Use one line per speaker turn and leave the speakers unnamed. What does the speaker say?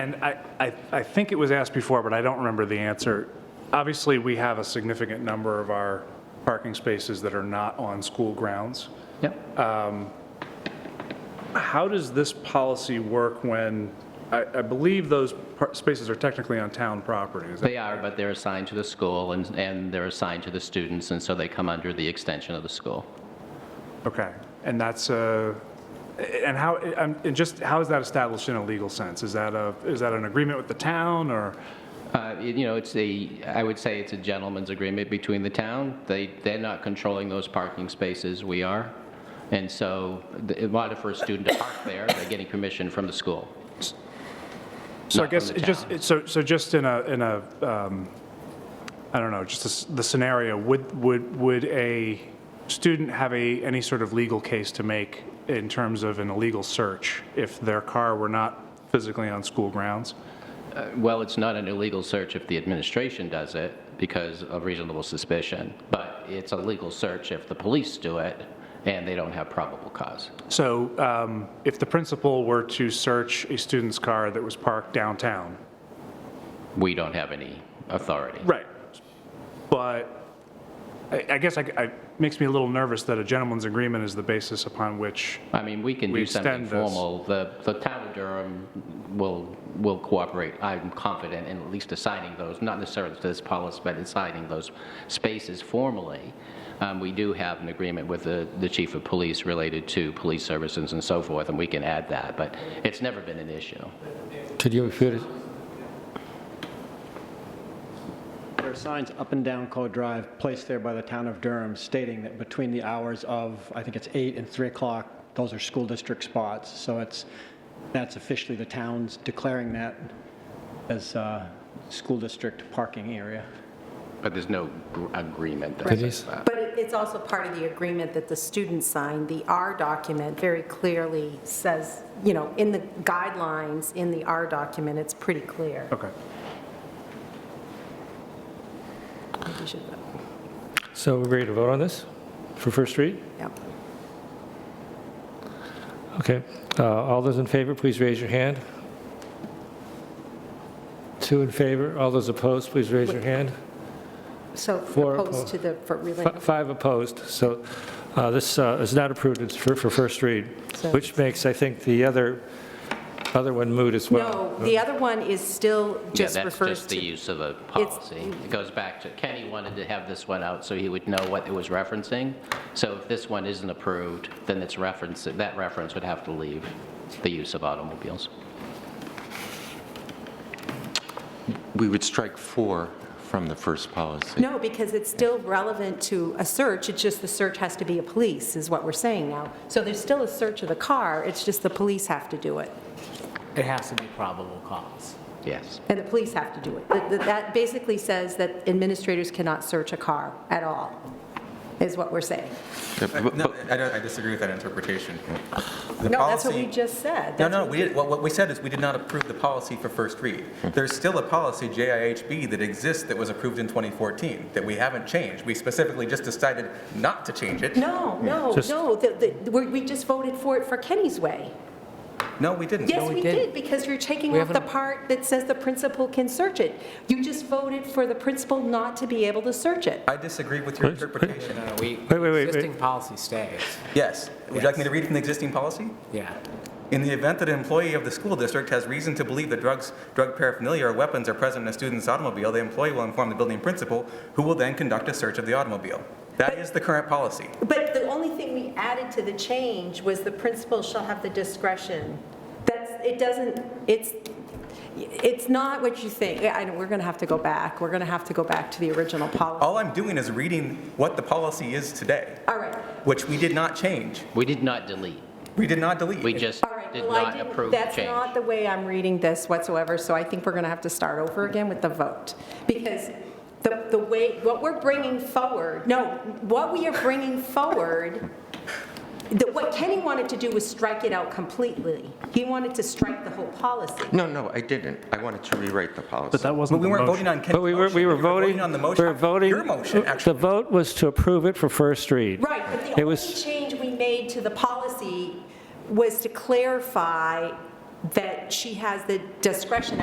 And I, I, I think it was asked before, but I don't remember the answer. Obviously, we have a significant number of our parking spaces that are not on school grounds.
Yep.
How does this policy work when, I, I believe those par- spaces are technically on town property? Is that-
They are, but they're assigned to the school and, and they're assigned to the students, and so they come under the extension of the school.
Okay, and that's, uh, and how, I'm- and just, how is that established in a legal sense? Is that a, is that an agreement with the town, or?
Uh, it- You know, it's a, I would say it's a gentleman's agreement between the town. They, they're not controlling those parking spaces, we are. And so the- in order for a student to park there, they're getting permission from the school.
So I
Not from
guess,
the
it just, it- so, so just in a, in a, um, I don't know, just the s- the scenario, would, would, would a student have a, any sort of legal case to make in terms of an illegal search if their car were not physically on school grounds?
Uh, Well, it's not an illegal search if the administration does it because of reasonable suspicion, but it's a legal search if the police do it and they don't have probable cause.
So um, if the principal were to search a student's car that was parked downtown?
We don't have any authority.
Right. But I I guess I- I, it makes me a little nervous that a gentleman's agreement is the basis upon which
I mean, we can
We
do something
extend this.
formal. The, the town of Durham will, will cooperate, I'm confident, in at least assigning those, not necessarily to this policy, but assigning those spaces formally. Um, We do have an agreement with the, the chief of police related to police services and so forth, and we can add that, but it's never been an issue.
Could you repeat it?
There are signs up and down Code Drive placed there by the town of Durham stating that between the hours of, I think it's 8 and 3 o'clock, those are school district spots. So it's, that's officially the town's declaring that as uh, school district parking area.
But there's no gr- agreement that
Right.
says that.
But it- it's also part of the agreement that the students signed. The R document very clearly says, you know, in the guidelines, in the R document, it's pretty clear.
Okay.
I think you should vote.
So we're ready to vote on this for first read?
Yep.
Okay. Uh, All those in favor, please raise your hand. Two in favor. All those opposed, please raise your hand.
So
For-
opposed to the, for really,
Fi- Five opposed. So uh, this uh, is not approved It's for for first read,
So-
which makes, I think, the other, other one moot as well.
no, the other one is still
Yeah,
just
that's
refers
just the
to.
use of a policy. It goes back to, Kenny wanted to have this one out so he would know what it was referencing. So if this one isn't approved, then it's reference, that reference would have to leave the use of automobiles.
We would strike four from the first policy.
No, because it's still relevant to a search, it's just the search has to be a police, is what we're saying now. So there's still a search of the car, it's just the police have to do it.
It has to be probable cause.
Yes.
And the police have to do it. That- that- That basically says that administrators cannot search a car at all, is what we're saying.
Yeah, but-
No,
but-
I don't, I disagree with that interpretation. The
No, that's what we
policy-
just said.
No,
That's
no,
what
we, did- what, what we said is we did not approve the policy for first read. There's still a policy, JIHB, that exists that was approved in 2014, that we haven't changed. We specifically just decided not to change it.
No, no,
Just-
no, the- the- we we just voted for it for Kenny's way.
No, we didn't.
Yes,
we
we
didn't.
did, because you're taking
We
off the
haven't-
part that says the principal can search it. You just voted for the principal not to be able to search it.
I disagree with your
Please, please.
interpretation.
No, no, Uh, we,
wait, wait, wait.
existing policy stays,
Yes. Would you like me to read from the existing policy?
yeah.
In the event that an employee of the school district has reason to believe that drugs, drug paraphernalia, or weapons are present in a student's automobile, the employee will inform the building principal, who will then conduct a search of the automobile. That is the current policy.
But the only thing we added to the change was the principal shall have the discretion. That's, it doesn't, it's, it's not what you think. Yeah, I know, we're going to have to go back. We're going to have to go back to the original policy.
All I'm doing is reading what the policy is today,
All right,
which we did not change.
We did not delete.
We did not delete.
We just
all right.
did
Well, I
not
didn't-
approve the
That's not
change.
the way I'm reading this whatsoever, so I think we're going to have to start over again with the vote. Because the, the way, what we're bringing forward, no, what we are bringing forward, the- what Kenny wanted to do was strike it out completely. He wanted to strike the whole policy.
No, no, I didn't. I wanted to rewrite the policy.
But that
But
wasn't
we
the
weren't
motion.
voting on Ken's
But we were,
motion.
we were voting.
on the
We were
motion,
voting.
your motion,
The
actually.
vote was to approve it for first read.
Right, but the
It
only
was-
change we made to the policy was to clarify that she has the discretion